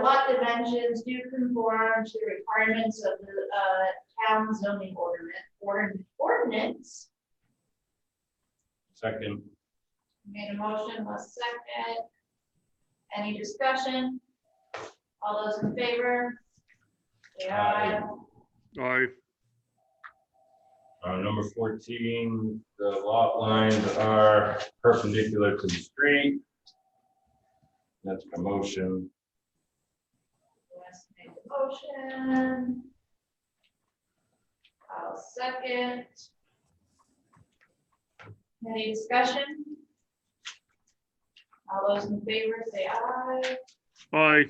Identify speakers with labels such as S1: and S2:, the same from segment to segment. S1: lot dimensions do conform to the requirements of the, uh, town zoning ordinance, ordin- ordinance.
S2: Second.
S1: Made a motion, was second. Any discussion? All those in favor? Say aye.
S3: aye,
S2: Uh, number fourteen, the lot lines are perpendicular to the street. That's the motion.
S1: Wes made the motion. I'll second. Any discussion? All those in favor say aye.
S3: aye.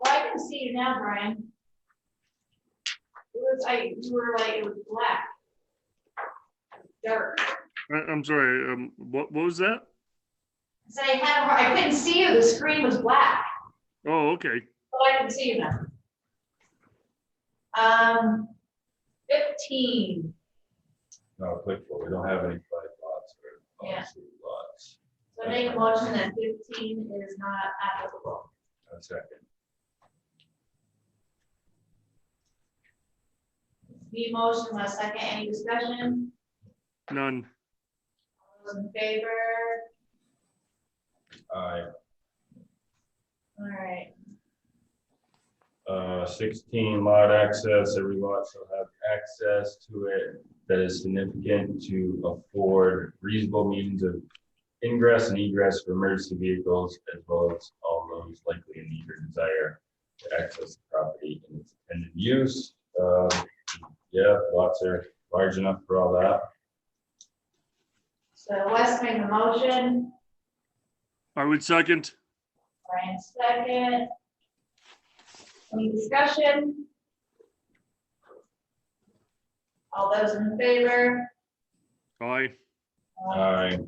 S1: Well, I can see you now, Brian. It was, I, you were like, it was black. Dark.
S3: I- I'm sorry, um, what, what was that?
S1: So I had, a hard- I couldn't see you, the screen was black.
S3: Oh, okay,
S1: Oh, I can see you now. Um, fifteen,
S2: No, applicable. We don't have any flag lots or
S1: Yeah.
S2: policy lots.
S1: so make a motion that fifteen is not applicable.
S2: A second.
S1: The motion was second, any discussion?
S3: none,
S1: All Those in favor?
S2: Aye.
S1: All right,
S2: Uh, sixteen lot access, every lot shall have access to it that is significant to afford reasonable means of ingress and egress for emergency vehicles as well as all those likely in need or desire to access the property in its intended use. Uh, yeah, lots are large enough for all that.
S1: so Wes made the motion,
S3: I would second,
S1: Brian second. Any discussion? All those in favor?
S3: aye,
S2: Aye.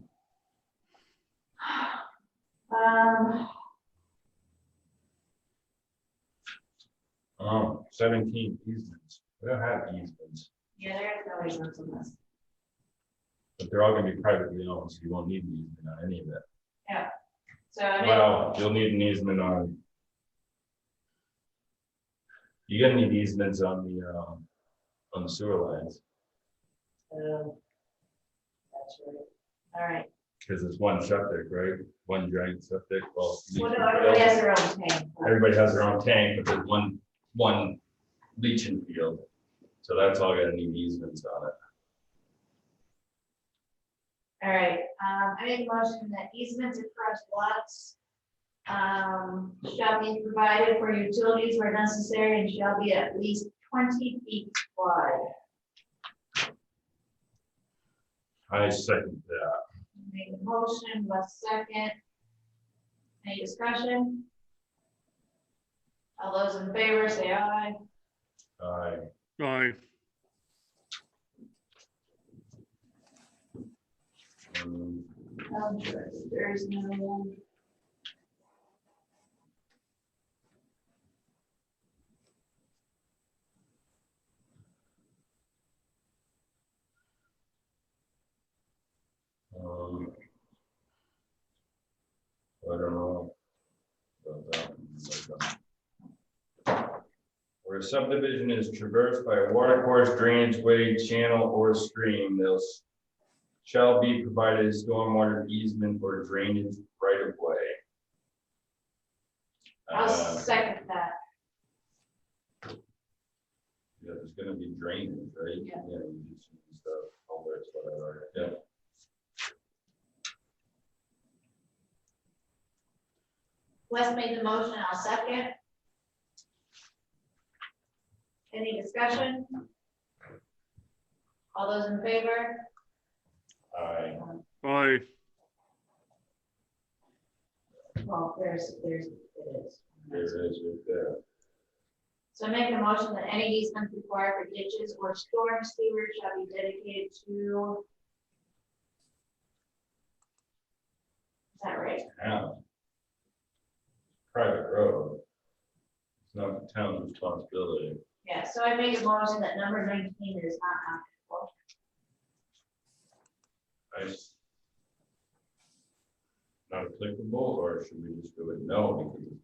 S1: Um,
S2: Um, seventeen easements. We don't have easements,
S1: yeah, there's no reasons on this.
S2: but they're all gonna be privately owned, so you won't need an easement on any of it.
S1: So I mean,
S2: Well, you'll need an easement on. You're gonna need easements on the, um, on the sewer lines,
S1: so. That's right. All right,
S2: because it's one septic, right? One giant septic, well.
S1: what about everybody has their own tank?
S2: Everybody has their own tank, but there's one, one leaching field. So that's all gonna need easements on it.
S1: All right, um, I make a motion that easements across lots um, shall be provided for utilities where necessary and shall be at least twenty feet wide.
S2: I second that.
S1: Make a motion, Wes second. Any discussion? All those in favor, say aye.
S2: I,
S3: aye,
S2: um,
S1: Um, There is no one.
S2: um, I don't know. about that one, but, um, Where a subdivision is traversed by a water course, drainage way, channel, or stream, those shall be provided a stormwater easement or drainage right of way.
S1: I'll
S2: Uh,
S1: second that.
S2: yeah, There's gonna be drainage, right?
S1: Yeah.
S2: you just use the culverts, whatever, yeah.
S1: Wes made the motion, I'll second. Any discussion? All those in favor?
S2: I,
S3: aye,
S1: Well, there's, there's, it is.
S2: there it is right there.
S1: So I make a motion that any easement required for ditches or storm sewers shall be dedicated to. Is that right?
S2: town. Private road. It's not the town's responsibility.
S1: Yeah, so I made a motion that number nineteen is not on.
S2: I s- Not applicable, or should we just do it no because it's